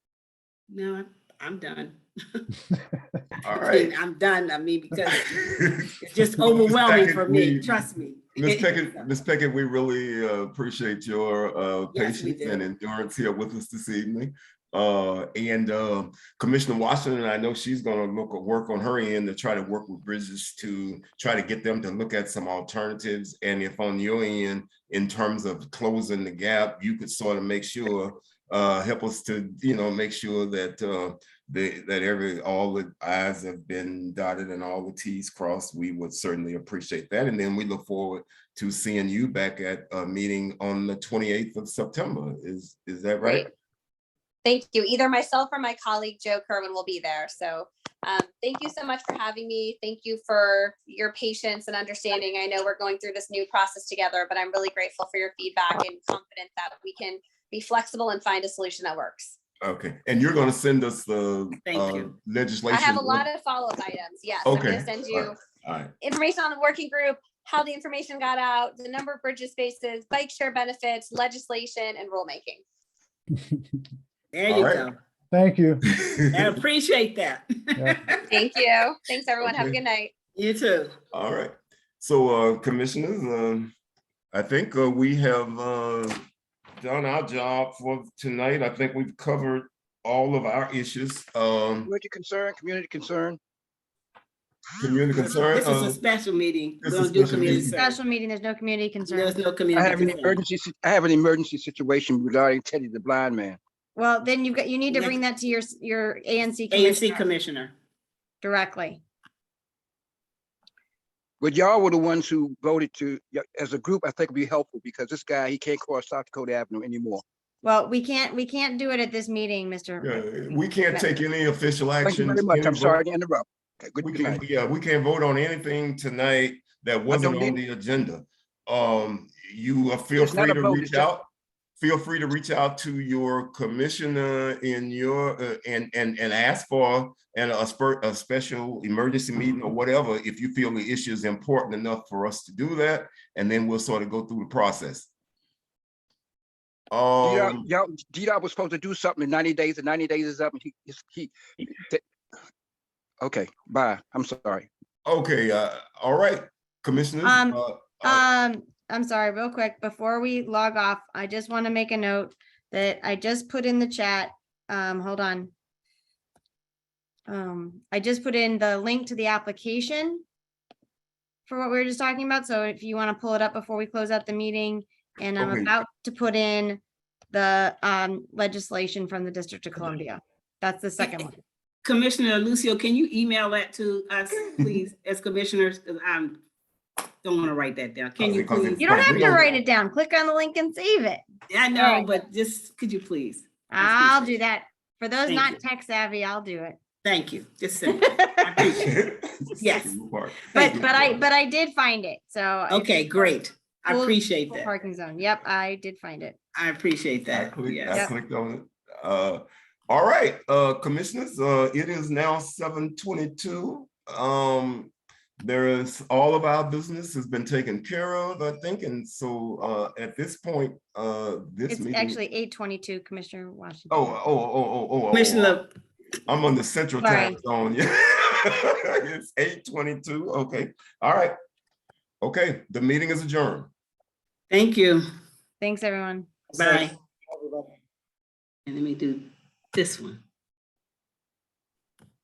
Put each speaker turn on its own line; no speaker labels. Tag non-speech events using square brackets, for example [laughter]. No, I'm- I'm done. [laughs]
All
I mean,
right.
I'm done. I mean,
[laughs]
because it's just overwhelming for me,
Second, we-
trust me.
Ms. Pickett, Ms. Pickett, we really uh, appreciate your uh,
Yes, we
patience and
do.
endurance here with us this evening. Uh, And uh, Commissioner Washington, I know she's gonna look, work on her end to try to work with Bridges to try to get them to look at some alternatives. And if on your end, in terms of closing the gap, you could sort of make sure, uh, help us to, you know, make sure that uh, the, that every, all the i's have been dotted and all the t's crossed, we would certainly appreciate that. And then we look forward to seeing you back at a meeting on the twenty-eighth of September. Is, is that right?
Thank you. Either myself or my colleague Joe Kerwin will be there. So um, thank you so much for having me. Thank you for your patience and understanding. I know we're going through this new process together, but I'm really grateful for your feedback and confident that we can be flexible and find a solution that works.
Okay, and you're gonna send us the
Thank
uh,
you.
legislation?
I have a lot of follow-up items. Yes, I'm
Okay.
gonna send you
All right,
information on the working group, how the information got out, the number of bridges spaces, bike share benefits, legislation, and rulemaking.
[laughs] There
All
you
right.
go.
Thank you.
I appreciate that.
Yeah.
Thank you. Thanks, everyone. Have a
Okay.
good night.
[laughs] You too.
all right. So, uh, commissioners, um, I think uh, we have, uh, done our job for tonight. I think we've covered all of our issues. Um,
Community concern, community concern.
community concern.
This is
uh,
a special meeting. We
this is
don't do
special
community
meeting.
service.
Special meeting, there's no community
There's
concern.
no
I have an
community. service.
emergency, si- I have an emergency situation regarding Teddy the blind man.
Well, then you've got, you need to
Next-
bring that to your, s- your ANC
ANC
commissioner
Commissioner.
directly.
But y'all were the ones who voted to, y- as a group, I think would be helpful because this guy, he can't cross South Dakota Avenue anymore.
Well, we can't, we can't do it at this meeting, Mr.
yeah, We can't take any official action.
Thank you very much. I'm sorry to interrupt. Okay, Good
We
good
can,
night.
yeah, we can't vote on anything tonight that wasn't
don't
on
need-
the agenda. Um, you uh, feel
It's not
free
a
to
vote,
reach
it's just-
out. Feel free to reach out to your commissioner in your, uh, and, and, and ask for an, a spur, a special emergency meeting or whatever, if you feel the issue is important enough for us to do that, and then we'll sort of go through the process.
Y'all,
Um,
y'all, D-Dot was supposed to do something in ninety days and ninety days is up and he, he's- he. th- Okay, bye. I'm sorry.
okay, uh, all right, commissioners.
Um,
uh, uh,
Um, I'm sorry, real quick, before we log off, I just want to make a note that I just put in the chat. Um, hold on. Um, I just put in the link to the application for what we were just talking about. So if you want to pull it up before we close out the meeting, and I'm
Okay.
about to put in the um legislation from the District of Columbia. That's the second one.
Commissioner Lucio, can you email that to us, please, as commissioners? Because I'm, don't want to write that down. Can you
Because it-
please?
You don't have to
Columbia.
write it down. Click on the link and save it.
I know, but just, could you please?
I'll do that. For those
Thank you.
not tech savvy, I'll do it.
Thank you.
[laughs]
Just simple. I appreciate it. Yes.
Mark.
But, but I, but I did find it, so. if
Okay,
you-
great. I
Full-
appreciate
full
that.
Parking zone, yep, I did find it.
I appreciate
I
that.
clicked, I
Yes.
clicked on it. Uh, all right, uh, commissioners, uh, it is now seven twenty-two. Um, there is, all of our business has been taken care of, I think, and so, uh, at this point, uh, this
It's
meeting.
actually eight twenty-two, Commissioner Washington.
Oh, oh, oh, oh, oh, oh.
Commissioner,
I'm on the central time zone, [laughs] yeah. It's eight twenty-two, okay, all right. Okay, the meeting is adjourned.
thank you.
Thanks, everyone.
Bye. And let me do this one.